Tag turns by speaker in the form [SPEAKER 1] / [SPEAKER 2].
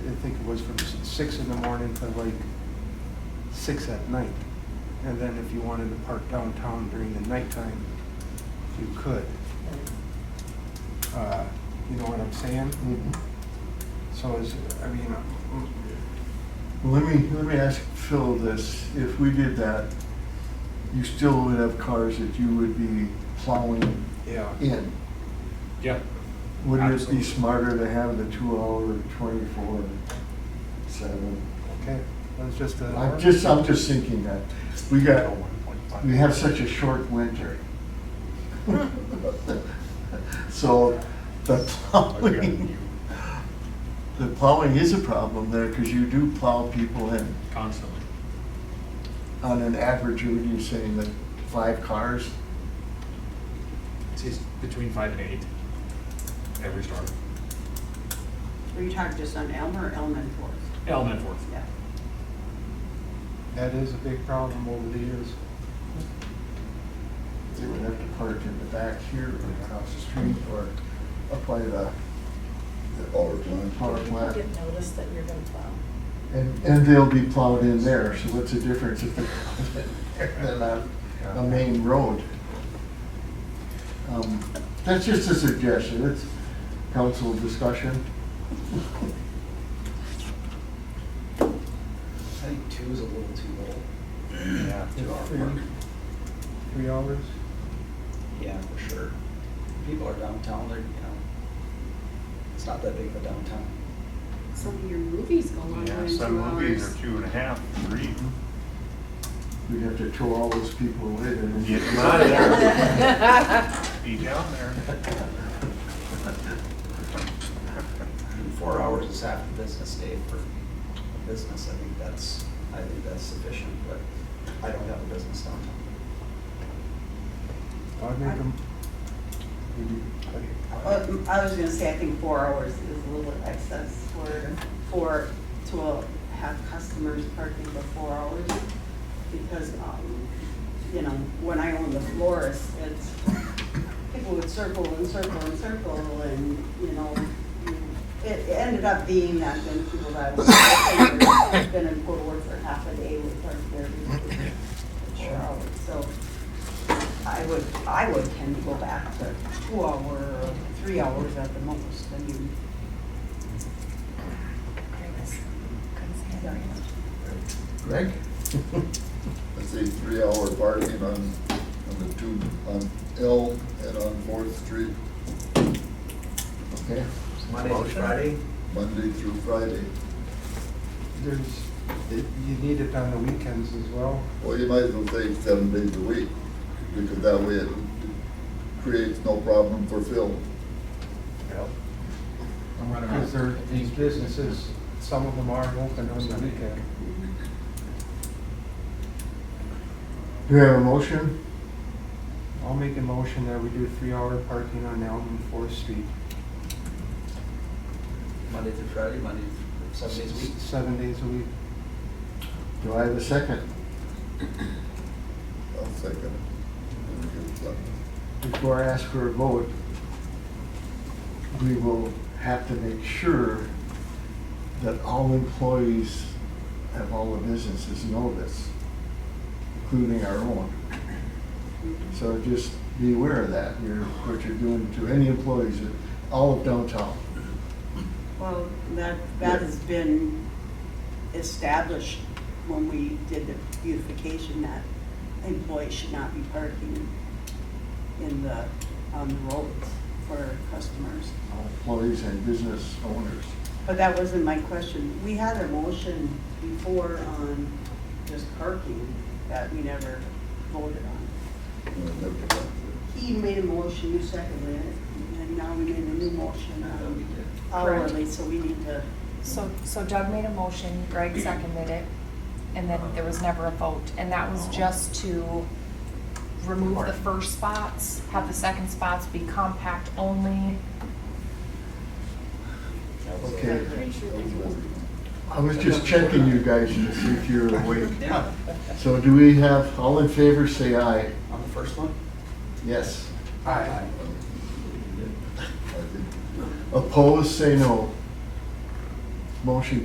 [SPEAKER 1] think it was from s- six in the morning to like six at night. And then if you wanted to park downtown during the nighttime, you could. Uh, You know what I'm saying? So is, I mean, uh,
[SPEAKER 2] Well, Let me, let me ask Phil this, if we did that, you still would have cars that you would be plowing
[SPEAKER 1] yeah.
[SPEAKER 2] in.
[SPEAKER 3] Yeah.
[SPEAKER 2] Wouldn't it
[SPEAKER 3] Absolutely.
[SPEAKER 2] be smarter to have the two hour, twenty-four, seven?
[SPEAKER 1] Okay, that's just a.
[SPEAKER 2] I'm just, I'm just thinking that, we got, we have such a short winter. So the plowing, the plowing is a problem there, because you do plow people in.
[SPEAKER 3] Constantly.
[SPEAKER 2] on an average, would you say that five cars?
[SPEAKER 3] It's it's between five and eight every start.
[SPEAKER 4] Were you talking just on Elmer or Elman Forest?
[SPEAKER 3] Elm and Forth.
[SPEAKER 4] Yeah.
[SPEAKER 1] That is a big problem over the years.
[SPEAKER 2] They would have to park in the back here or across the street or up by the
[SPEAKER 5] Or one.
[SPEAKER 2] power plant.
[SPEAKER 6] Get notice that you're gonna plow.
[SPEAKER 2] And, and they'll be plowed in there, so what's the difference if they're plowed in there than on a main road? Um, That's just a suggestion, it's council discussion.
[SPEAKER 7] I think two is a little too little.
[SPEAKER 1] Yeah.
[SPEAKER 7] Two hour
[SPEAKER 1] Three,
[SPEAKER 7] park.
[SPEAKER 1] three hours?
[SPEAKER 7] Yeah, for sure. People are downtown, they're, you know, it's not that big of a downtown.
[SPEAKER 4] Some of your movies go longer
[SPEAKER 8] Yeah,
[SPEAKER 4] than two
[SPEAKER 8] some movies
[SPEAKER 4] hours.
[SPEAKER 8] are two and a half, three.
[SPEAKER 2] We'd have to throw all those people away and.
[SPEAKER 8] Get them out of there. Be down there.
[SPEAKER 7] And Four hours is half a business day for a business, I think that's, I think that's sufficient, but I don't have a business downtown.
[SPEAKER 1] I'd make them.
[SPEAKER 4] Well, m- Uh, I was gonna say, I think four hours is a little bit excess for, for, to have customers parking for four hours. Because, um, you know, when I owned the florist, it's, people would circle and circle and circle and, you know, it it ended up being that then people that were gonna go to work for half a day would park there for four hours. So I would, I would tend to go back to two hour, or three hours at the most, I mean.
[SPEAKER 2] Greg?
[SPEAKER 5] I say three hour parking on, on the two, on Elm and on Fourth Street,
[SPEAKER 2] Okay.
[SPEAKER 7] Monday through Friday?
[SPEAKER 5] Monday through Friday.
[SPEAKER 1] There's, it- you need it on the weekends as well.
[SPEAKER 5] Well, you might as well say seven days a week, because that way it creates no problem for Phil.
[SPEAKER 1] Because there, these businesses, some of them aren't open on the weekend.
[SPEAKER 2] Do we have a motion?
[SPEAKER 1] I'll make a motion that we do three-hour parking on Elm and Fourth Street.
[SPEAKER 7] Monday through Friday, Monday, through- seven days a week?
[SPEAKER 1] Seven days a week.
[SPEAKER 2] Do I have a second?
[SPEAKER 5] I'll second it.
[SPEAKER 2] Before I ask for a vote, we will have to make sure that all employees of all the businesses know this, including our own. So just be aware of that, you're, what you're doing to any employees, all of downtown.
[SPEAKER 4] Well, that, that has been established when we did the beautification, that employees should not be parking in the, on the roads for customers.
[SPEAKER 2] all employees and business owners.
[SPEAKER 4] But that wasn't my question. We had a motion before on just parking that we never voted on.
[SPEAKER 7] Mm-hmm.
[SPEAKER 4] He made a motion, you seconded it, and now we made a new motion
[SPEAKER 7] No, we
[SPEAKER 4] um,
[SPEAKER 7] did.
[SPEAKER 4] hourly, so we need to,
[SPEAKER 9] So, so Doug made a motion, Greg seconded it, and then there was never a vote. And that was just to remove the first spots, have the second spots be compact only.
[SPEAKER 7] That was it.
[SPEAKER 2] Okay,
[SPEAKER 6] Pretty sure there's
[SPEAKER 2] I was just checking you guys to see if you're awake. So do we have, all in favor, say aye.
[SPEAKER 7] On the first one?
[SPEAKER 2] Yes.
[SPEAKER 7] Aye.
[SPEAKER 5] I think
[SPEAKER 2] Opposed, say no. Motion